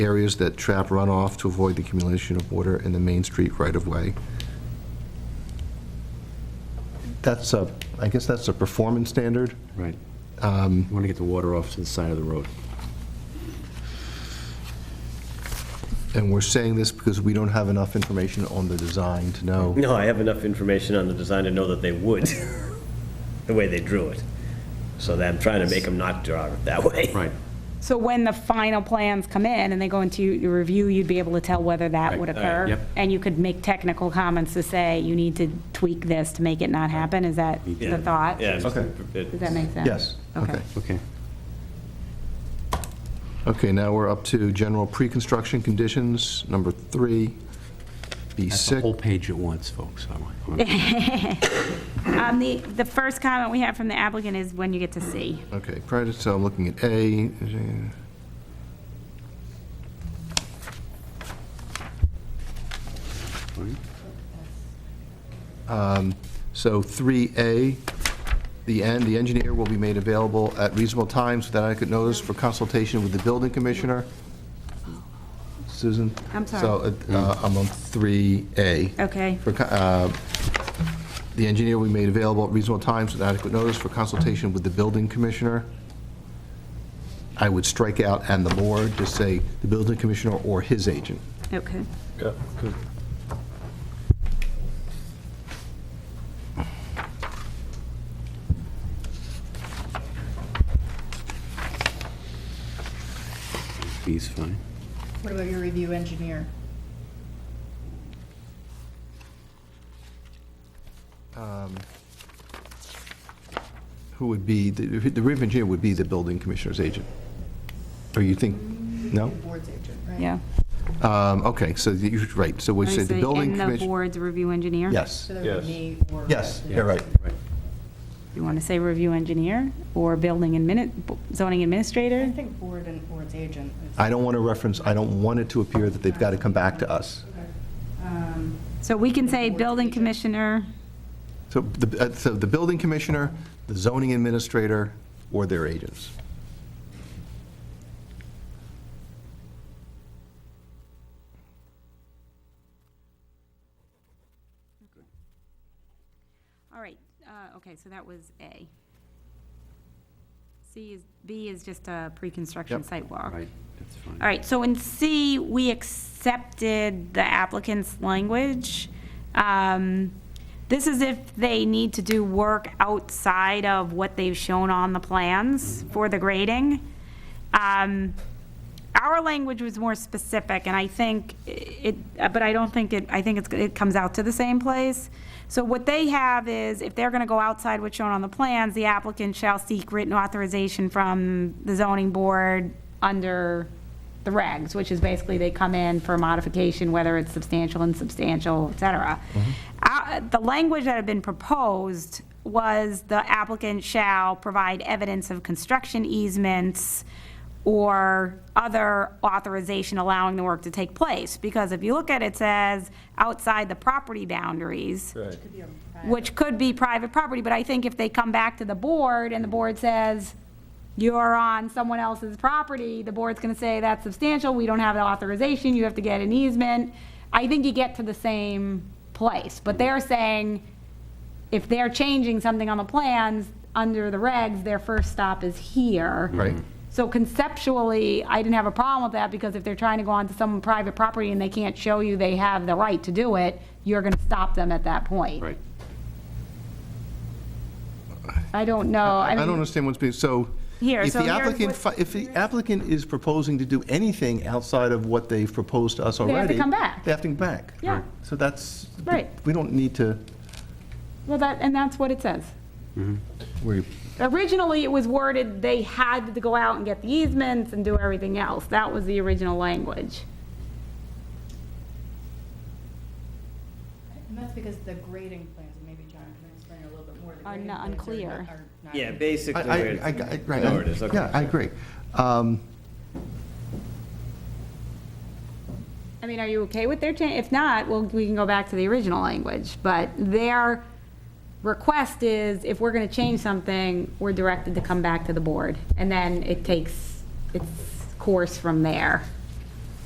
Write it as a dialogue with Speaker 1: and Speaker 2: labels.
Speaker 1: areas that trap runoff to avoid the accumulation of water in the Main Street right-of-way. That's a, I guess that's a performance standard.
Speaker 2: Right. You want to get the water off to the side of the road.
Speaker 1: And we're saying this because we don't have enough information on the design to know.
Speaker 3: No, I have enough information on the design to know that they would, the way they drew it. So that I'm trying to make them not draw it that way.
Speaker 2: Right.
Speaker 4: So when the final plans come in and they go into your review, you'd be able to tell whether that
Speaker 2: Right,
Speaker 4: would
Speaker 2: all right,
Speaker 4: occur?
Speaker 2: yep.
Speaker 4: And you could make technical comments to say, you need to tweak this to make it not happen? Is that the thought?
Speaker 3: Yeah. it's-
Speaker 1: Okay.
Speaker 3: it-
Speaker 4: Does that make sense?
Speaker 1: Yes,
Speaker 4: Okay.
Speaker 1: okay.
Speaker 2: Okay.
Speaker 1: Okay, now we're up to general pre-construction conditions, number three,
Speaker 2: That's the whole
Speaker 1: B6.
Speaker 2: page at once, folks. I want-
Speaker 4: Um, the, the first comment we have from the applicant is when you get to C.
Speaker 1: Okay, prior to, so I'm looking at A. Um, So 3A, the end, the engineer will be made available at reasonable times without adequate notice for consultation with the building commissioner. Susan?
Speaker 4: I'm sorry.
Speaker 1: So uh, I'm on 3A.
Speaker 4: Okay.
Speaker 1: For co- uh, The engineer will be made available at reasonable times with adequate notice for consultation with the building commissioner. I would strike out "and the board," just say "the building commissioner or his agent."
Speaker 4: Okay.
Speaker 2: B's fine.
Speaker 5: What about your review engineer?
Speaker 1: Who would be, the the roof engineer would be the building commissioner's agent? Or you think, no?
Speaker 5: Board's agent, right?
Speaker 4: Yeah.
Speaker 1: Um, Okay, so you're right, so we
Speaker 4: I
Speaker 1: say the
Speaker 4: say,
Speaker 1: building
Speaker 4: And the
Speaker 1: commissioner.
Speaker 4: board's review engineer?
Speaker 1: Yes,
Speaker 5: So that would be me or.
Speaker 1: yes, you're right.
Speaker 2: Right.
Speaker 4: You want to say review engineer or building admin, zoning
Speaker 5: I
Speaker 4: administrator?
Speaker 5: think board and board's agent. is-
Speaker 1: I don't want to reference, I don't want it to appear that they've got to come back to us.
Speaker 5: Um,
Speaker 4: So we can say building commissioner,
Speaker 1: So the, uh, so the building commissioner, the zoning administrator, or their agents.
Speaker 4: all right, uh, okay, so that was A. C is, B is just a pre-construction
Speaker 1: Yep.
Speaker 4: site walk.
Speaker 2: Right, that's fine.
Speaker 4: All right, so in C, we accepted the applicant's language. Um, This is if they need to do work outside of what they've shown on the plans for the grading. Um, Our language was more specific, and I think it, but I don't think it, I think it's, it comes out to the same place. So what they have is, if they're gonna go outside what's shown on the plans, the applicant shall seek written authorization from the zoning board under the regs, which is basically they come in for modification, whether it's substantial, insubstantial, et cetera. Uh, The language that had been proposed was the applicant shall provide evidence of construction easements or other authorization allowing the work to take place. Because if you look at it, it says outside the property boundaries which could be private property, but I think if they come back to the board and the board says, you're on someone else's property, the board's gonna say, that's substantial, we don't have the authorization, you have to get an easement. I think you get to the same place, but they're saying, if they're changing something on the plans, under the regs, their first stop is here.
Speaker 1: Right.
Speaker 4: So conceptually, I didn't have a problem with that, because if they're trying to go onto some private property and they can't show you they have the right to do it, you're gonna stop them at that point.
Speaker 2: Right.
Speaker 4: I don't know,
Speaker 1: I
Speaker 4: I
Speaker 1: don't
Speaker 4: mean,
Speaker 1: understand what's being, so.
Speaker 4: Here,
Speaker 1: if
Speaker 4: so
Speaker 1: the
Speaker 4: here's
Speaker 1: applicant
Speaker 4: what-
Speaker 1: fi- If the applicant is proposing to do anything outside of what they've proposed to us
Speaker 4: have
Speaker 1: already.
Speaker 4: to come back.
Speaker 1: They have to come back.
Speaker 4: Yeah.
Speaker 1: So that's.
Speaker 4: Right.
Speaker 1: We don't need to,
Speaker 4: well, that, and that's what it says.
Speaker 1: we
Speaker 4: Originally, it was worded, they had to go out and get the easements and do everything else. That was the original language.
Speaker 5: And that's because the grading plans, and maybe John can explain a little bit more. the
Speaker 4: Are
Speaker 5: grading
Speaker 4: not
Speaker 5: plans
Speaker 4: unclear.
Speaker 5: not- are not-
Speaker 3: Yeah, basically.
Speaker 1: I, I,
Speaker 3: where-
Speaker 1: I, I- right.
Speaker 3: There it is, okay.
Speaker 1: Yeah, I agree. Um,
Speaker 4: I mean, are you okay with their change? If not, well, we can go back to the original language. But their request is, if we're gonna change something, we're directed to come back to the board. And then it takes its course from there.